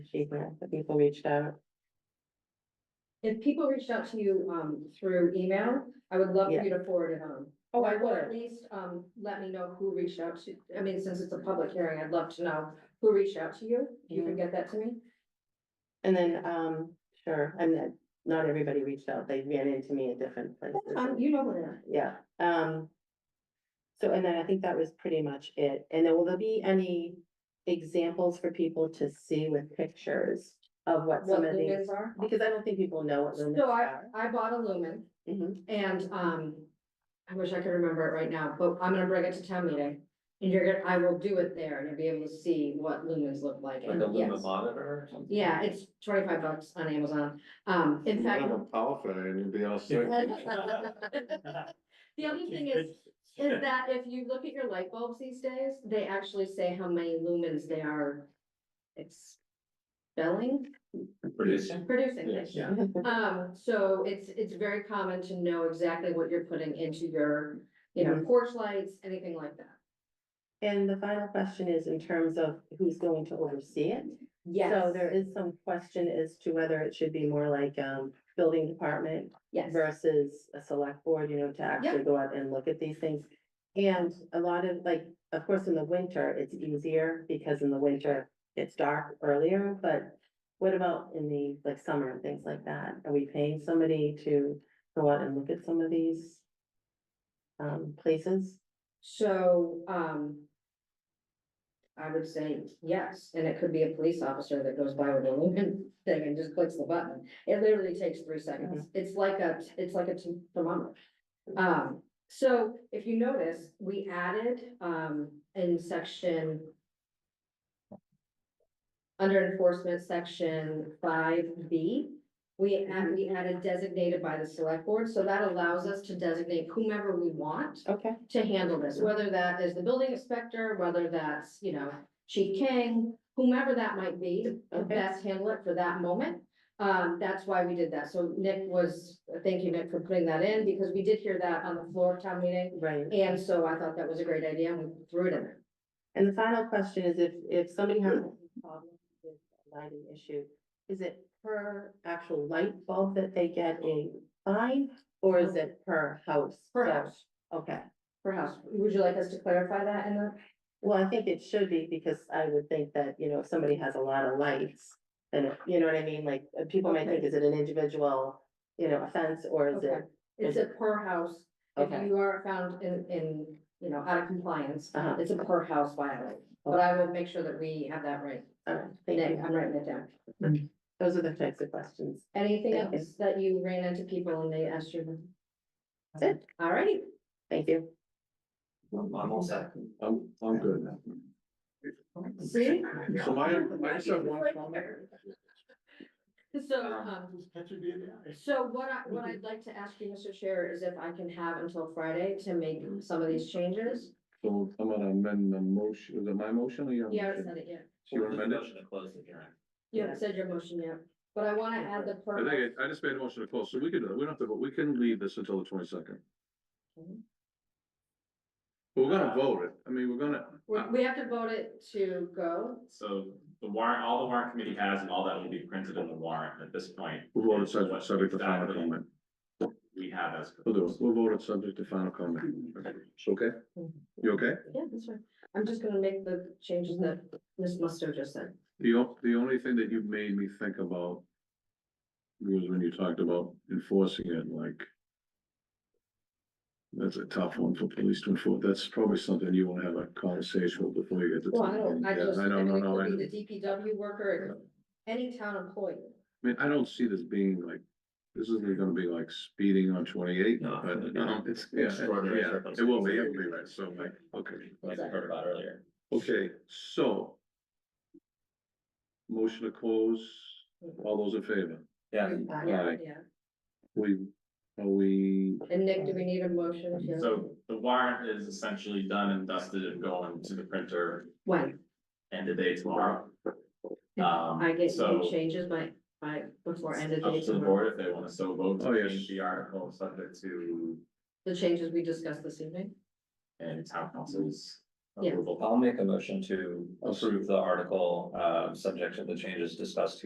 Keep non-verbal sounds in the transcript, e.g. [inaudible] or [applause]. achievement that people reached out. If people reached out to you, um, through email, I would love for you to forward it on. Oh, I Or would. At least, um, let me know who reached out to, I mean, since it's a public hearing, I'd love to know who reached out to you. If You can get that to me. And then, um, sure, and then not everybody reached out, they ran into me at different Um, places. you know where. Yeah, um. So, and then I think that was pretty much it. And then will there be any examples for people to see with pictures of what What some of lumens these? are. Because I don't think people know what lumens So I, are. I bought a lumen Mhm. and, um, I wish I could remember it right now, but I'm gonna bring it to town meeting. And you're gonna, I will do it there and you'll be able to see what lumens look like. Like a and lumen yes. monitor or something? Yeah, it's twenty-five bucks on Amazon. Um, in fact, Have a power failure and you'd be all set. The other thing is, is that if you look at your light bulbs these days, they actually say how many lumens they are. Expelling, Producing. producing, Yes. thank you. Um, so it's, it's very common to know exactly what you're putting into your, you know, porch lights, anything like that. And the final question is in terms of who's going to oversee it? So there is some question as to whether it should be more like, um, building department Yes, versus a select board, you know, to actually go out and look at these things. And a lot of, like, of course, in the winter, it's easier because in the winter, it's dark earlier, but what about in the, like, summer and things like that? Are we paying somebody to go out and look at some of these um, places? so, um. I would say yes, and it could be a police officer that goes by with a lumen [laughs] thing and just clicks the button. It literally takes three seconds. It's like a, it's like a t- thermometer. Um, so if you notice, we added, um, in section. Under enforcement, section five B, we add, we added designated by the select board, so that allows us to designate whomever we want Okay. to handle this, whether that is the building inspector, whether that's, you know, Chief King, whomever that might be, the Okay. best handler for that moment. Um, that's why we did that. So Nick was, thank you, Nick, for putting that in, because we did hear that on the floor of town meeting. Right. And so I thought that was a great idea and we threw it in there. And the final question is if, if somebody has a problem with a lighting issue, is it per actual light bulb that they get a fine? Or is it per house? Perhaps, Okay, perhaps. Would you like us to clarify that in the? well, I think it should be because I would think that, you know, if somebody has a lot of lights, then, it- you know what I mean, like, uh, people might think, is it an individual, you know, offense or is it? Okay. It's a per house. If Okay. you are found in, in, you know, out of compliance, Uh-huh. it's a per house violation. But I will make sure that we have that right. All right, thank you. Nick, I'm writing it down. Those are the types of questions. Anything Thank you. else that you ran into people and they asked you? That's it. All righty. Thank you. I'm all set. I'm, I'm good. See? So my, I just have one comment. So, um, so what I, what I'd like to ask you, Mr. Chair, is if I can have until Friday to make some of these changes? So I'm gonna amend the motion, is it my motion or your? Yeah, I motion? haven't said it yet. So you amend it? Motion to close the hearing. You haven't said your motion yet, but I wanna add the I per. think, I I just made a motion to close, so we could, we don't have to, vote. we can leave this until the twenty-second. We're gonna vote it, I mean, we're gonna, We, we have to vote it to go. So the warrant, all the warrant committee has and all that will be printed in the warrant at this point. we'll vote it subject, subject to final Exactly comment. We have as. We'll do it, we'll vote it subject to final comment. It's okay? You okay? Yeah, that's right. I'm just gonna make the changes that Ms. Musto just said. The, o- the only thing that you've made me think about was when you talked about enforcing it, like that's a tough one for police to enforce. That's probably something you want to have a conversation with before you get to. Well, I town don't, meeting. I Yeah, just, I I don't know, mean, it no, I could I be the DPW worker, it could- any town employee. mean, I don't see this being like, this isn't gonna be like speeding on twenty-eight, No. but, um, it's, yeah, Extraordinary yeah, it will be, it will be, right, so, like, okay. Like we heard about earlier. Okay, so motion to close, all those in favor? Yeah. Uh, Aye. Yeah, We, are we, and Nick, do we need a motion? to- So the warrant is essentially done and dusted and going to the printer When? end of day tomorrow. Um, I get so- you changes by, by, before end of Up day to the tomorrow, board if they want to so vote Oh, to yes. change the article subject to the changes we discussed this evening. and town council's Yeah. approval. I'll make a motion to I'll s- approve the article, uh, subject to the changes discussed